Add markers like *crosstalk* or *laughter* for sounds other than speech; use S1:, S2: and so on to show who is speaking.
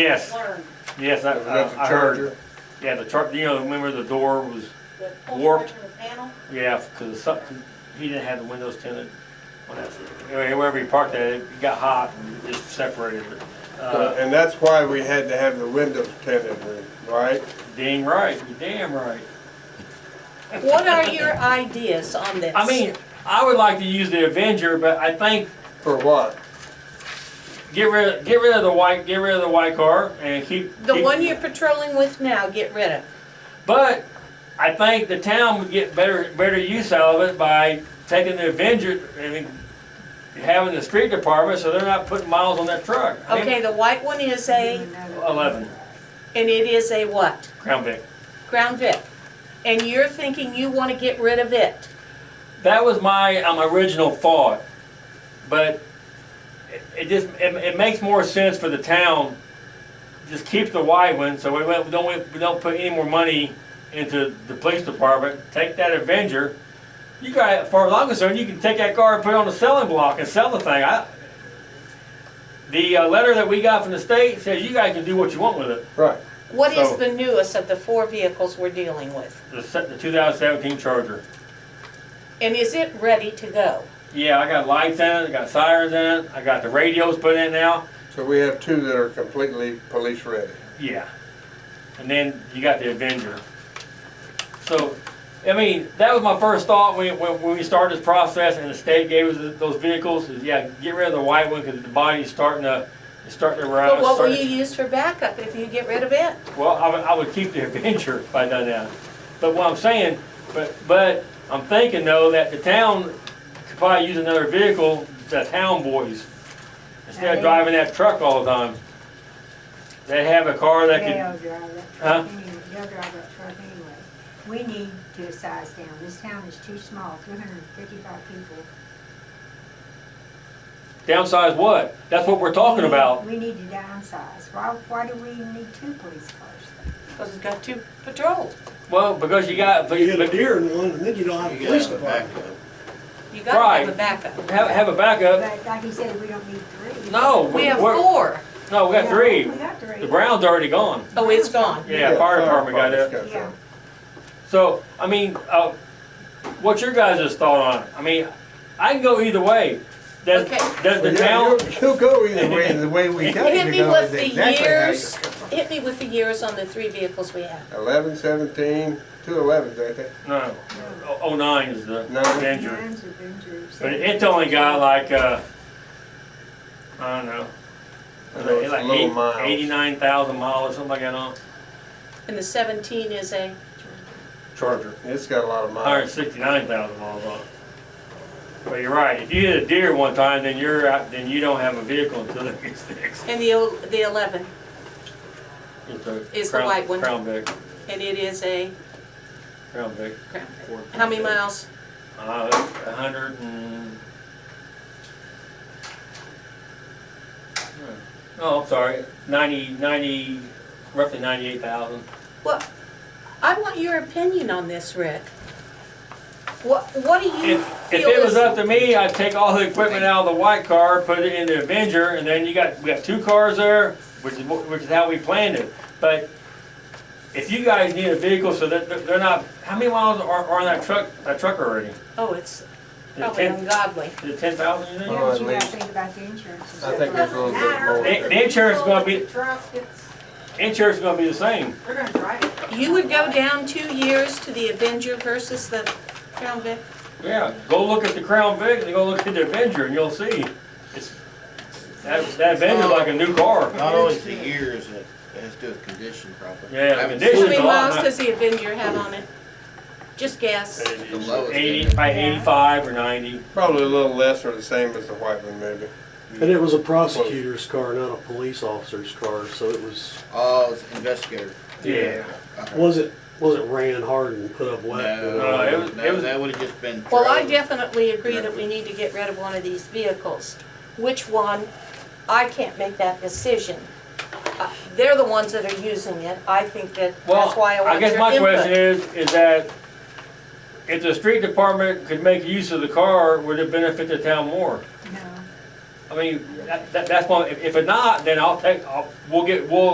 S1: Yes,
S2: learned
S1: yes, I,
S3: Is that
S1: I I
S3: the
S1: heard.
S3: charger?
S1: Yeah, the chart, you know, remember the door was,
S2: the pull
S1: Warped.
S2: strip in the panel.
S1: yeah, because something, he didn't have the windows tinted. Well, that's- Anyway, wherever he parked that, it got hot and just separated it.
S3: Uh,
S1: Uh,
S3: And that's why we had to have the windows tinted, right?
S1: damn right, you damn right.
S4: What are your ideas on this?
S1: I mean, I would like to use the Avenger, but I think
S3: For what?
S1: get rid, get rid of the white, get rid of the white car and keep.
S4: The
S1: keep-
S4: one you're patrolling with now, get rid of.
S1: But I think the town would get better, better use out of it by taking the Avenger and having the street department, so they're not putting miles on that truck. I mean,
S4: Okay, the white one is a,
S1: Eleven,
S4: and it is a what?
S1: Crown Vic.
S4: Crown Vic. And you're thinking you wanna get rid of it.
S1: That was my, um, original thought, but it, it just, it, it makes more sense for the town. Just keep the wide one, so we won't- we don't, we don't put any more money into the police department, take that Avenger. You got, for as long as concerned, you can take that car and put it on the selling block and sell the thing, I. The, uh, letter that we got from the state says you guys can do what you want with it,
S3: Right.
S4: What
S1: So-
S4: is the newest of the four vehicles we're dealing with?
S1: the, se- the two thousand seventeen Charger.
S4: And is it ready to go?
S1: Yeah, I got lights in it, I got sirens in it, I got the radios put in now.
S3: So we have two that are completely police ready.
S1: Yeah. And then you got the Avenger. So, I mean, that was my first thought when, when, when we started this process and the state gave us th- those vehicles, is yeah, get rid of the white one because the body's starting to, it's starting to rot.
S4: But what will
S1: starting
S4: you use for backup if you get rid of it?
S1: to- Well, I would, I would keep the *laughs* Avenger if I done that. But what I'm saying, but, but I'm thinking though that the town could probably use another vehicle, the town boys, instead of driving that truck all the time. They have a car that could.
S5: They'll drive that
S1: Huh?
S5: truck anyway, they'll drive that truck anyway. We need to size down, this town is too small, three hundred and fifty-five people.
S1: Downsize what? That's what we're talking
S5: We-
S1: about.
S5: We need to downsize, why, why do we need two police cars?
S4: Cause it's got two patrols.
S1: Well, because you got, but
S6: You get a
S1: but
S6: deer in one, and then you don't have a police department.
S4: You gotta have a
S1: Right.
S4: backup.
S1: have, have a backup.
S5: But like you said, we don't need three.
S1: No,
S4: We have
S1: we're-
S4: four.
S1: No, we got three.
S5: We got three.
S1: The Brown's already gone.
S4: Oh, it's gone.
S1: Yeah, fire department got
S3: department's
S1: it.
S3: got
S5: Yeah.
S1: So, I mean, uh, what's your guys' thought on it? I mean, I can go either way. Does,
S4: Okay.
S1: does
S3: Well,
S1: the
S3: yeah,
S1: town,
S3: you'll- You'll go either way, the way we got
S4: Hit
S3: it to
S4: me
S3: go
S4: with
S3: is
S4: the
S3: exactly how you.
S4: years, hit me with the years on the three vehicles we have.
S3: Eleven, seventeen, two elevens, I think.
S1: no, oh- oh nine is the
S3: No.
S1: Avenger.
S5: Mine's Avengers.
S1: But it's only got like, uh, I don't know,
S3: I know it's a little
S1: like
S3: miles.
S1: eighty-nine thousand miles or something like that on
S4: And the seventeen is a,
S1: Charger.
S3: It's got a lot of
S1: hundred
S3: miles.
S1: sixty-nine thousand miles on it. But you're right, if you hit a deer one time, then you're out, then you don't have a vehicle until it gets fixed.
S4: and the, el- the eleven, Is
S1: It's
S4: the
S1: Crown-
S4: white one.
S1: Crown Vic,
S4: and it is a,
S1: Crown Vic.
S4: Crown how many miles?
S1: Uh, a hundred and. Oh, I'm sorry, ninety, ninety, roughly ninety-eight thousand.
S4: Well, I want your opinion on this, Rick. What, what do you
S1: If, if
S4: feel
S1: it was up
S4: is,
S1: to me, I'd take all the equipment out of the white car, put it in the Avenger, and then you got, we got two cars there, which is, what- which is how we planned it. But if you guys need a vehicle so that they're- they're not, how many miles are, are on that truck, that truck already? Is
S4: oh, it's
S1: it
S4: probably
S1: 10
S4: ungodly.
S1: Is it ten thousand, you think?
S3: Oh,
S5: Yeah, but
S3: at
S5: you gotta
S3: least.
S5: think about the insurance. and
S3: I
S5: stuff.
S3: think there's a little bit more.
S1: The,
S3: there.
S1: the insurance is gonna be,
S7: Truck, it's,
S1: insurance is gonna be the same.
S7: they're gonna drive it.
S4: You would go down two years to the Avenger versus the Crown Vic?
S1: Yeah, go look at the Crown Vic and go look at the Avenger and you'll see. It's, that, that Avenger's like a new car.
S8: Not always the years, it it has to do with condition probably.
S1: Yeah,
S8: I haven't
S1: This condition. is
S4: How
S8: seen
S4: many
S1: a lot,
S4: miles
S1: huh?
S4: does the Avenger have on it? Just guess.
S8: the lowest
S1: Eighty, by eighty-five or ninety.
S3: Probably a little less or the same as the white one maybe.
S6: And it was a prosecutor's car, not a police officer's car, so it was,
S8: Oh, it's investigator.
S1: Yeah.
S8: Okay.
S6: was it, was it ran hard and put up wet? Uh,
S1: No, Uh, it
S8: No,
S1: was- it
S8: no,
S1: was-
S8: that would've just been.
S4: Well, I
S8: drove.
S4: definitely agree that we need to get rid of one of these vehicles. Which one, I can't make that decision. Uh, They're the ones that are using it, I think that, that's
S1: Well,
S4: why I
S1: I
S4: want your
S1: guess my question
S4: input.
S1: is, is that if the street department could make use of the car, would it benefit the town more?
S5: No.
S1: I mean, that, that- that's one, if, if it not, then I'll take, I'll, we'll get, we'll